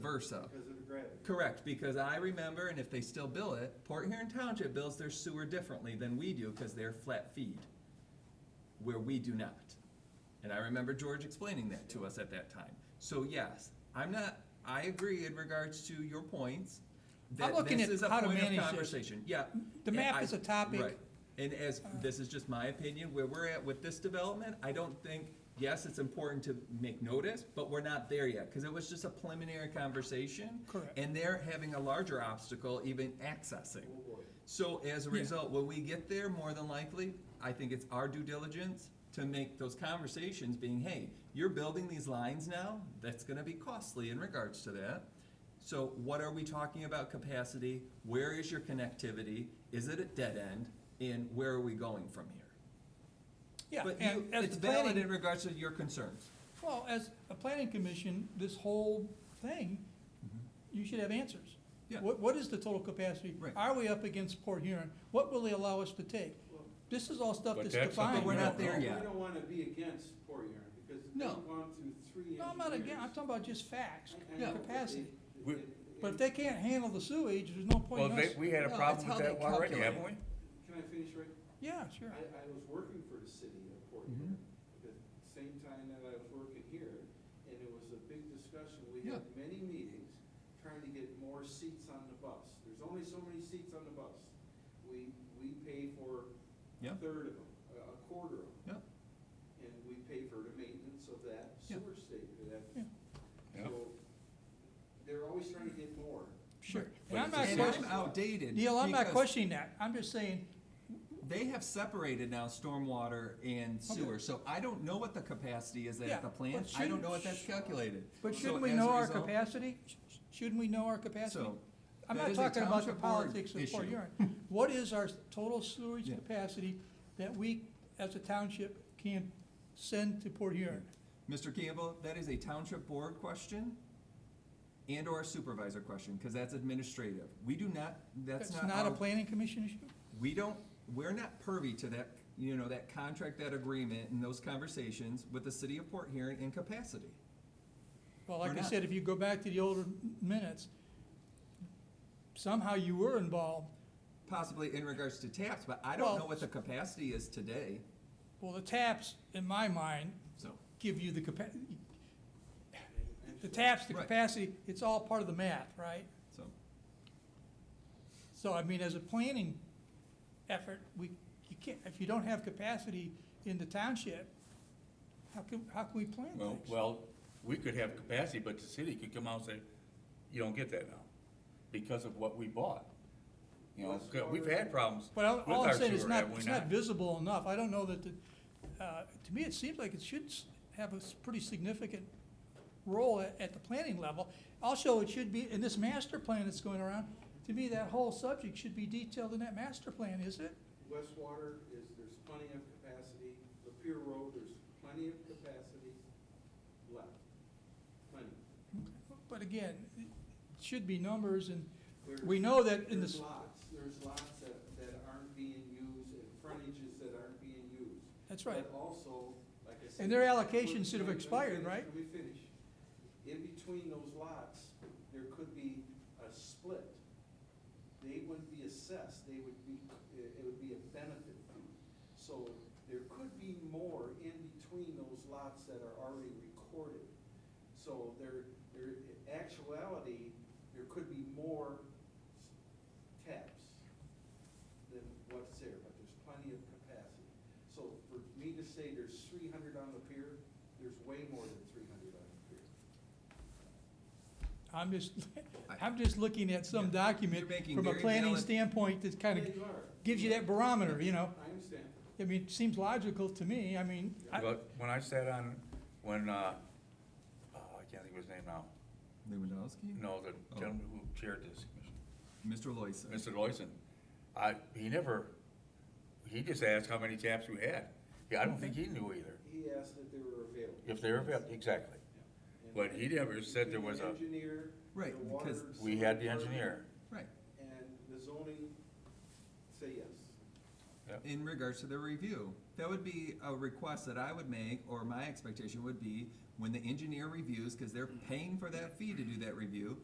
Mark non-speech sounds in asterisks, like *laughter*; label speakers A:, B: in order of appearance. A: versa.
B: Because of the gravity.
A: Correct, because I remember, and if they still bill it, Port Huron Township bills their sewer differently than we do because they're flat feed, where we do not. And I remember George explaining that to us at that time. So yes, I'm not, I agree in regards to your points. that
C: I'm looking
A: this
C: at
A: is a
C: how to
A: point of
C: manage this.
A: Conversation, yeah.
C: The
A: and
C: map
A: I-
C: is a topic. Uh.
A: Right. And as, this is just my opinion, where we're at with this development, I don't think, yes, it's important to make notice, but we're not there yet, because it was just a preliminary conversation.
C: Correct.
A: And they're having a larger obstacle even
B: Oh,
A: accessing. So as a
C: Yeah.
A: result, when we get there, more than likely, I think it's our due diligence to make those conversations being, hey, you're building these lines now, that's gonna be costly in regards to that. So what are we talking about capacity? Where is your connectivity? Is it at dead end? And where are we going from here?
C: Yeah,
A: But you,
C: and as
A: it's
C: the
A: valid in
C: planning,
A: regards to your concerns.
C: well, as a planning commission, this whole thing, you should have answers.
A: Mm-hmm. Yeah.
C: What, what is the total capacity?
A: Right.
C: Are we up against Port Huron? What will they allow us to take? This is all stuff
D: But
C: that's
D: that's something
C: defined.
A: But we're
D: we
A: not
D: don't
A: there
D: know.
B: We
A: yet.
B: don't want to be against Port Huron because they've
A: No.
B: gone through three engineers.
C: No, I'm not again, I'm talking about just facts,
B: I- I know, but they-
C: capacity.
D: We-
B: they-
C: But if they can't handle the sewage, there's no
D: Well,
C: point in
D: they,
C: us.
D: we had a
A: No, it's
D: problem
A: how
D: with that
A: they
D: one already,
A: calculate.
D: haven't we?
B: Can I finish right?
C: Yeah, sure. Mm-hmm.
B: I, I was working for the city of Port Huron at the same time that I was working here, and it was a big discussion. We had many meetings trying to get more seats on the bus. There's only so many seats on the bus. We, we pay for
A: Yeah.
B: a third of them, a- a quarter of them,
A: Yeah,
B: and we pay for the maintenance of that
A: Yeah.
B: sewer station,
C: Yeah.
B: that.
D: Yeah.
B: So, they're always trying to get more.
C: Sure.
D: But
C: And I'm
D: it's
C: not
D: the same-
A: And I'm
C: questioning,
A: outdated.
C: Neil, I'm not
A: because-
C: questioning that. I'm just saying,
A: They have separated now stormwater and sewer, so I don't know what the capacity is
C: Yeah,
A: at the
C: but
A: plant. I
C: shouldn't-
A: don't know what that's calculated.
C: but
A: So
C: shouldn't we
A: as a
C: know our
A: result-
C: capacity? Sh- sh- Shouldn't we know our capacity?
A: So,
C: I'm
A: that
C: not
A: is a
C: talking about the
A: township board
C: politics of Port
A: issue.
C: Huron. What is our total sewage
A: Yeah.
C: capacity that we, as a township, can send to Port Huron?
A: Mr. Campbell, that is a township board question and/or a supervisor question, because that's administrative. We do not, that's
C: That's
A: not
C: not a
A: our
C: planning commission issue?
A: we don't, we're not privy to that, you know, that contract, that agreement, and those conversations with the city of Port Huron in capacity.
C: Well, like
A: We're
C: I
A: not.
C: said, if you go back to the older m- minutes, somehow you were involved.
A: Possibly in regards to taps, but I don't
C: Well-
A: know what the capacity is today,
C: Well, the taps, in my mind,
A: so.
C: give you the capa, the taps, the
A: Right.
C: capacity, it's all part of the math, right?
A: So,
C: So, I mean, as a planning effort, we, you can't, if you don't have capacity in the township, how can, how can we plan
D: Well,
C: things?
D: well, we could have capacity, but the city could come out and say, you don't get that now, because of what we bought. You know, 'cause we've had problems with
C: But all- all I'm
D: our
C: saying is
D: sewer,
C: not,
D: have we
C: it's not
D: not?
C: visible enough. I don't know that the, uh, to me, it seems like it should s- have a s- pretty significant role at, at the planning level. Also, it should be, in this master plan that's going around, to me, that whole subject should be detailed in that master plan, is it?
B: West Water is, there's plenty of capacity. Lapeer Road, there's plenty of capacity left. Plenty.
C: But again, it should be numbers and
B: There's-
C: we know that in
B: There's
C: this,
B: lots, there's lots that, that aren't being used and frontages that aren't being used.
C: That's right.
B: But also, like I said.
C: And their allocations should have
B: Let me- let me
C: expired,
B: finish,
C: right?
B: Let me finish. In between those lots, there could be a split. They wouldn't be assessed, they would be, it it would be a benefit fee. So there could be more in between those lots that are already recorded. So there, there, in actuality, there could be more s- taps than what's there, but there's plenty of capacity. So for me to say there's three hundred on the pier, there's way more than three hundred on the pier.
A: *laughs*
C: I'm just, I'm just looking at some
A: You're
C: document
A: making
C: from a
A: very
C: planning
A: valid-
C: standpoint that kind
B: Yeah, you are.
C: of gives you that barometer, you know?
B: I understand.
C: I mean, it seems logical to me, I mean, I,
D: But when I sat on, when, uh, oh, I can't think of his name now,
A: Lewandowski?
D: no, the gentleman who chaired this commission.
A: Mr. Loyson.
D: Mr. Loyson, I, he never, he just asked how many taps we had. Yeah, I don't think he knew either,
B: He asked if they were available.
D: if they're available, exactly.
B: And-
D: But he never said there
B: Between
D: was
B: the
D: a-
B: Engineer.
A: Right,
B: the water
A: because-
D: We had the
B: sewer
D: engineer.
A: Right.
B: And the zoning, say yes.
A: in regards to the review. That would be a request that I would make, or my expectation would be, when the engineer reviews, because they're paying for that fee to do that review,